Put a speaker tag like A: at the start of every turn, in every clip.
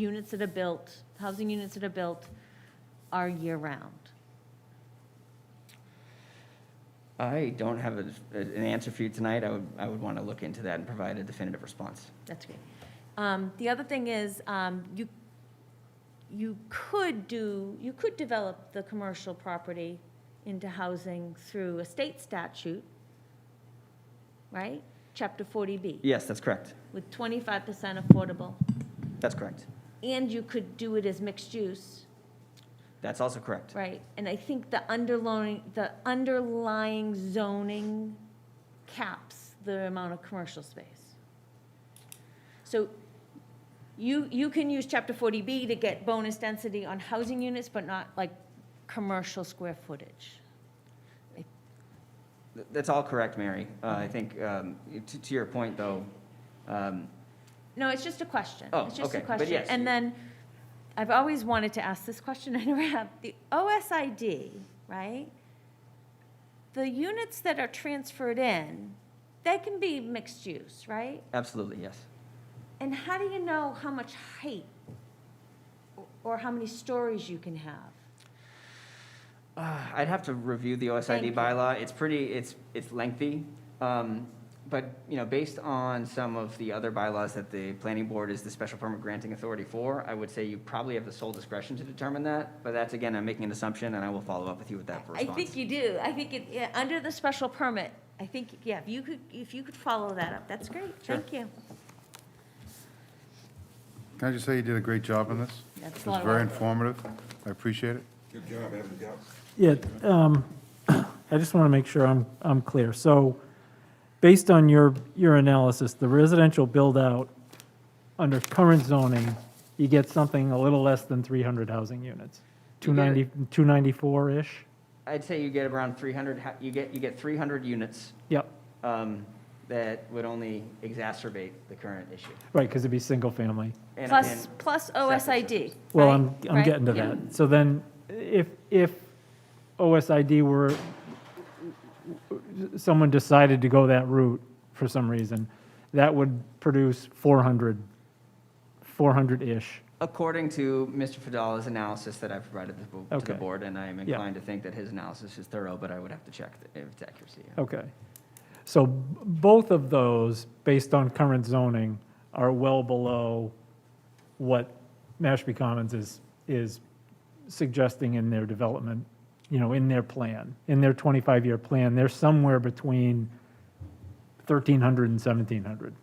A: units that are built, housing units that are built are year-round.
B: I don't have a- an answer for you tonight. I would, I would want to look into that and provide a definitive response.
A: That's great. Um, The other thing is, um, you, you could do, you could develop the commercial property into housing through a state statute, right? Chapter 40B,
B: Yes, that's correct.
A: with 25% affordable.
B: That's correct.
A: And you could do it as mixed use,
B: That's also correct.
A: right? And I think the underlying, the underlying zoning caps the amount of commercial space. So you, you can use chapter 40B to get bonus density on housing units, but not like commercial square footage.
B: Th- That's all correct, Mary. Uh, I think, um, to, to your point, though, um,
A: No, it's just a question.
B: Oh,
A: It's just
B: okay,
A: a
B: but
A: question.
B: yes.
A: And then, I've always wanted to ask this question, I never have. The OSID, right? The units that are transferred in, they can be mixed use, right?
B: absolutely, yes.
A: And how do you know how much height or- or how many stories you can have?
B: Uh, I'd have to review the
A: Thank you.
B: OSID bylaw. It's pretty, it's, it's lengthy. Um, But, you know, based on some of the other bylaws that the planning board is the special permit granting authority for, I would say you probably have the sole discretion to determine that. But that's, again, I'm making an assumption, and I will follow up with you with that for
A: I
B: response.
A: think you do. I think it, yeah, under the special permit, I think, yeah, if you could, if you could follow that up, that's great.
B: Sure.
A: Thank you.
C: Can I just say you did a great job on this?
A: That's a
C: It
A: lot
C: was
A: of
C: very
A: work.
C: informative. I appreciate it.
D: Good job, Evan, job.
E: Yeah, um, I just want to make sure I'm, I'm clear. So based on your, your analysis, the residential build-out under current zoning, you get something a little less than 300 housing units,
B: You get it.
E: 290, 294-ish?
B: I'd say you get around 300, ha- you get, you get 300 units
E: Yep,
B: um, that would only exacerbate the current issue.
E: right, because it'd be single-family.
B: And-
A: Plus,
B: and-
A: plus OSID.
E: Well,
A: right?
E: I'm, I'm
A: Right?
E: getting to
A: Yeah.
E: that. So then, if, if OSID were, someone decided to go that route for some reason, that would produce 400, 400-ish.
B: According to Mr. Fidal's analysis that I provided the bo- to the
E: Okay.
B: board, and I am
E: Yeah.
B: inclined to think that his analysis is thorough, but I would have to check the- if its accuracy.
E: Okay. So b- both of those, based on current zoning, are well below what Mashpee Commons is, is suggesting in their development, you know, in their plan, in their 25-year plan. They're somewhere between 1,300 and 1,700.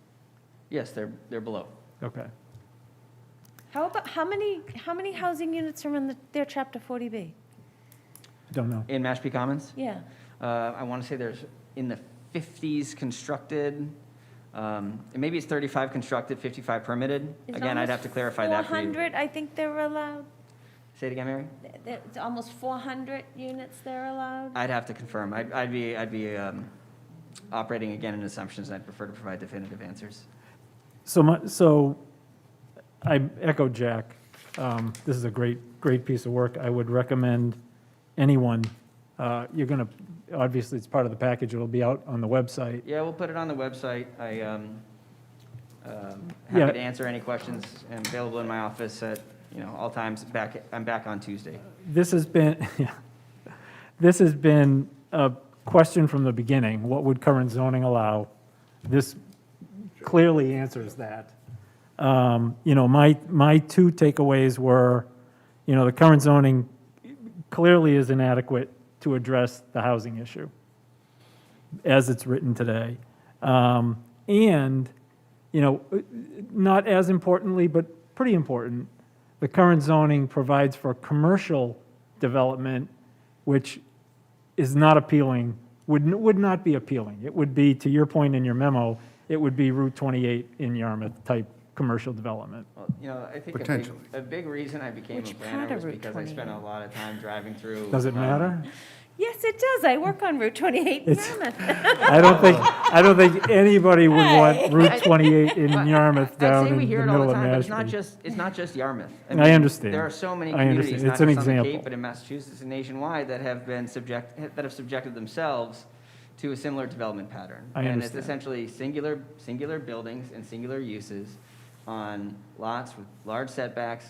B: Yes, they're, they're below.
E: Okay.
A: How about, how many, how many housing units are in the- their chapter 40B?
E: Don't know.
B: In Mashpee Commons,
A: Yeah.
B: uh, I want to say there's in the 50s constructed, um, and maybe it's 35 constructed, 55 permitted.
A: It's
B: Again, I'd
A: almost
B: have to clarify that for you.
A: 400, I think they're allowed,
B: Say it again, Mary?
A: There- it's almost 400 units they're allowed.
B: I'd have to confirm. I'd, I'd be, I'd be um, operating again in assumptions. I'd prefer to provide definitive answers.
E: So my, so I echo Jack. Um, This is a great, great piece of work. I would recommend anyone, uh, you're going to, obviously, it's part of the package. It'll be out on the website.
B: Yeah, we'll put it on the website. I, um, um,
E: Yeah.
B: happy to answer any questions. I'm available in my office at, you know, all times. Back, I'm back on Tuesday.
E: This has been, yeah. this has been a question from the beginning. What would current zoning allow? This clearly answers that. Um, You know, my, my two takeaways were, you know, the current zoning clearly is inadequate to address the housing issue as it's written today. Um, And, you know, not as importantly, but pretty important, the current zoning provides for commercial development, which is not appealing, would, n- would not be appealing. It would be, to your point in your memo, it would be Route 28 in Yarmouth-type commercial development.
B: Well, you know, I think a big,
C: Potentially.
B: a big reason I became a
A: Which part
B: planner
A: of
B: was
A: Route
B: because I spent a
A: 28?
B: lot of time driving through.
E: Does it
B: um,
E: matter?
A: Yes, it does, I work on Route 28 in
E: It's-
A: Yarmouth.
E: I don't think, I don't think anybody would
A: Hey.
E: want Route 28 in Yarmouth
B: I'd
E: down
B: say
E: in
B: we
E: the
B: hear it all
E: middle
B: the
E: of
B: time, but it's not
E: Mashpee.
B: just, it's not just Yarmouth.
E: I
B: mean,
E: understand.
B: There are so many
E: I understand.
B: communities, not
E: It's an
B: just on the Cape,
E: example.
B: but in Massachusetts and nationwide, that have been subject, that have subjected themselves to a similar development pattern.
E: I
B: And it's
E: understand.
B: essentially singular, singular buildings and singular uses on lots with large setbacks